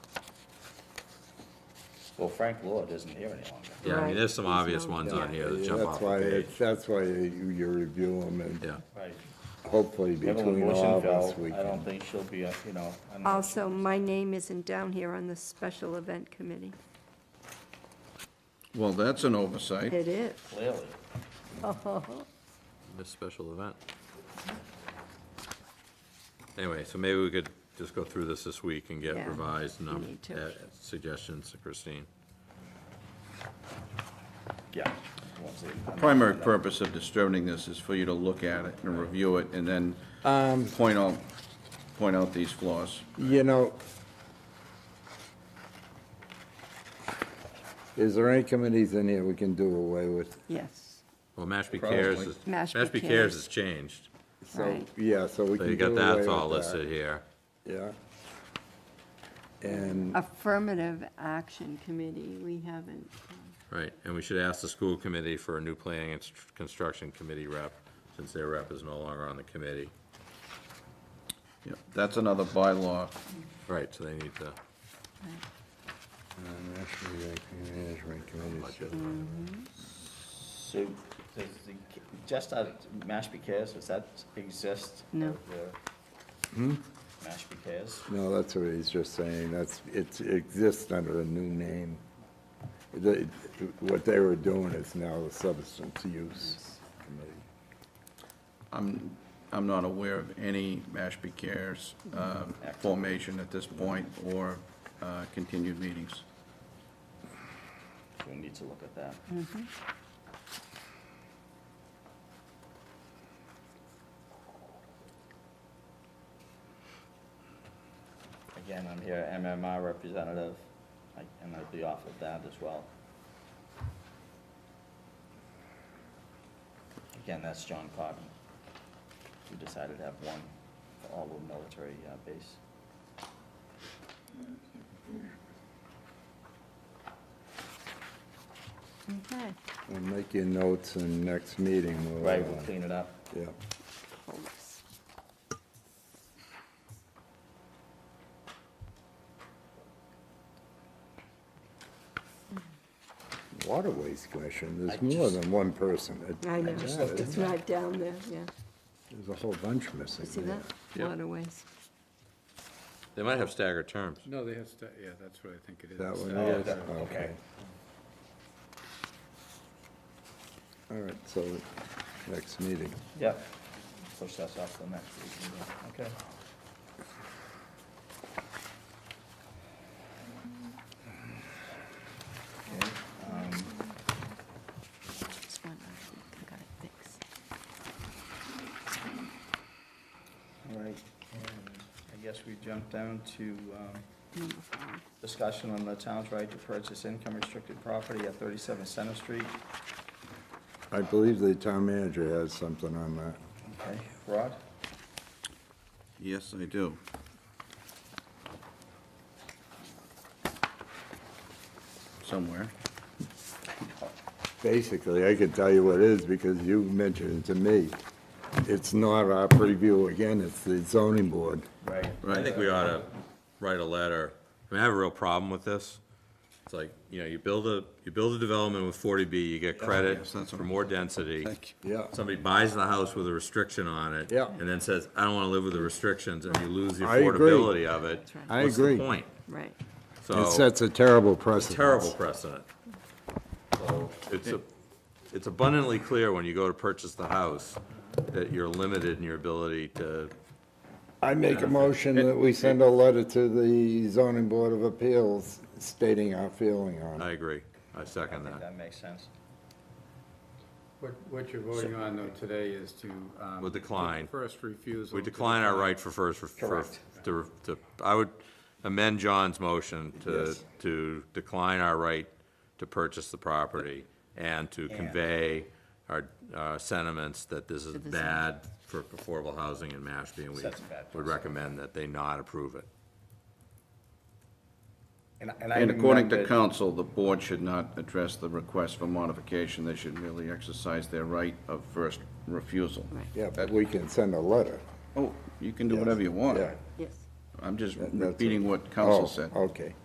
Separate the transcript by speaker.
Speaker 1: Well, Frank Lord isn't here any longer.
Speaker 2: Yeah, I mean, there's some
Speaker 3: Right.
Speaker 2: obvious ones on here that jump
Speaker 4: That's
Speaker 2: off the
Speaker 4: why,
Speaker 2: page.
Speaker 4: it's- that's why you you review them and
Speaker 2: Yeah,
Speaker 1: Right.
Speaker 4: hopefully
Speaker 1: Evelyn
Speaker 4: between all of us, we
Speaker 1: Bushenfeld, I don't
Speaker 4: can.
Speaker 1: think she'll be, uh, you know, I don't know.
Speaker 3: Also, my name isn't down here on the special event committee.
Speaker 5: Well, that's an oversight.
Speaker 3: It is.
Speaker 1: clearly.
Speaker 2: missed special event. Anyway, so maybe we could just go through this this week and get
Speaker 3: Yeah,
Speaker 2: revised
Speaker 3: we
Speaker 2: num,
Speaker 3: need to.
Speaker 2: uh, suggestions to Christine.
Speaker 1: Yeah. You won't see it.
Speaker 5: Primary purpose of distributing this is for you to look at it and review it, and then
Speaker 4: Um,
Speaker 5: point out, point out these flaws.
Speaker 4: You know, is there any committees in here we can do away with?
Speaker 3: Yes.
Speaker 2: Well, Mashpee Cares is,
Speaker 3: Mashpee
Speaker 2: Mashpee Cares
Speaker 3: Cares.
Speaker 2: has changed,
Speaker 4: So,
Speaker 3: Right.
Speaker 4: yeah, so we
Speaker 2: so
Speaker 4: can
Speaker 2: you
Speaker 4: do away
Speaker 2: got that,
Speaker 4: with
Speaker 2: it's all
Speaker 4: that.
Speaker 2: listed here.
Speaker 4: Yeah. And,
Speaker 3: Affirmative Action Committee, we haven't.
Speaker 2: Right, and we should ask the school committee for a new planning and str- construction committee rep, since their rep is no longer on the committee.
Speaker 5: Yep, That's another bylaw.
Speaker 2: Right, so they need to
Speaker 4: um, actually, the community management committees.
Speaker 2: budget.
Speaker 3: Mm-hmm.
Speaker 1: So, does the, just out of Mashpee Cares, does that exist?
Speaker 3: No.
Speaker 1: out there? Mashpee Cares?
Speaker 4: No, that's what he's just saying, that's, it exists under a new name. The- What they were doing is now the Substance Use Committee.
Speaker 5: I'm, I'm not aware of any Mashpee Cares uh, formation at this point or uh, continued meetings.
Speaker 1: So We need to look at that. Again, I'm here, MMR representative, I- and I'd be off of that as well. Again, that's John Cotton. We decided to have one for all the military uh, base.
Speaker 3: Okay.
Speaker 4: We'll make your notes and next meeting, we'll.
Speaker 1: Right, we'll
Speaker 4: uh,
Speaker 1: clean it up.
Speaker 4: Yeah,
Speaker 3: folks.
Speaker 4: Waterways Commission,
Speaker 1: I
Speaker 4: there's more
Speaker 1: just-
Speaker 4: than one person. It-
Speaker 3: I know,
Speaker 4: yeah,
Speaker 3: it's
Speaker 4: There's
Speaker 3: not down there, yeah.
Speaker 4: there's a whole bunch missing
Speaker 3: You see
Speaker 4: there.
Speaker 3: that? Waterways.
Speaker 2: They might have staggered terms.
Speaker 6: No, they have, sta- yeah, that's what I think it is.
Speaker 4: That one
Speaker 6: Uh,
Speaker 4: is, Oh, okay. All right, so, next meeting.
Speaker 1: Yep. Push that off to the next week. Okay.
Speaker 3: Just one, I think I got it fixed.
Speaker 1: All right. and I guess we jump down to um,
Speaker 3: Number five.
Speaker 1: discussion on the town's right to purchase income-restricted property at 37 Center Street.
Speaker 4: I believe the town manager has something on that.
Speaker 1: Okay, Rod?
Speaker 5: Yes, I do. Somewhere.
Speaker 4: Basically, I can tell you what it is because you mentioned it to me. It's not our preview again, it's the zoning board.
Speaker 1: Right.
Speaker 2: I think we ought to write a letter. I mean, I have a real problem with this. It's like, you know, you build a, you build a development with forty B, you get credit
Speaker 5: Yes, that's what
Speaker 2: for
Speaker 5: I'm-
Speaker 2: more density.
Speaker 5: Thank
Speaker 4: Yeah.
Speaker 2: Somebody buys the house with a restriction on it.
Speaker 4: Yeah.
Speaker 2: And then says, I don't wanna live with the restrictions, and you lose the
Speaker 4: I agree.
Speaker 2: affordability of it.
Speaker 3: That's right.
Speaker 4: I
Speaker 2: What's the
Speaker 4: agree.
Speaker 2: point?
Speaker 3: Right.
Speaker 4: It
Speaker 2: So,
Speaker 4: sets a terrible precedent.
Speaker 2: terrible precedent. So, it's, a- it's abundantly clear when you go to purchase the house that you're limited in your ability to,
Speaker 4: I make a motion that we send a letter to the zoning board of appeals stating our feeling on
Speaker 2: I
Speaker 4: it.
Speaker 2: agree, I
Speaker 1: I
Speaker 2: second
Speaker 1: think
Speaker 2: that.
Speaker 1: that makes sense.
Speaker 6: What, what you're voting on though today is to. um,
Speaker 2: We'll decline.
Speaker 6: First refusal.
Speaker 2: We decline our right for first, for- for,
Speaker 1: Correct.
Speaker 2: to, to, I would amend John's motion to,
Speaker 4: Yes.
Speaker 2: to decline our right to purchase the property and to convey our uh, sentiments that this is
Speaker 3: To the
Speaker 2: bad for affordable housing in Mashpee, and we
Speaker 1: Sets a bad
Speaker 2: would
Speaker 1: precedent.
Speaker 2: recommend that they not approve it.
Speaker 1: And I
Speaker 5: And according to
Speaker 1: remembered-
Speaker 5: council, the board should not address the request for modification. They should merely exercise their right of first refusal.
Speaker 3: Right.
Speaker 4: Yeah, but we can send a letter.
Speaker 5: Oh, you can do whatever you want.
Speaker 4: Yeah.
Speaker 3: Yes.
Speaker 5: I'm just
Speaker 4: that's
Speaker 5: repeating what
Speaker 4: Oh,
Speaker 5: council said.
Speaker 4: okay.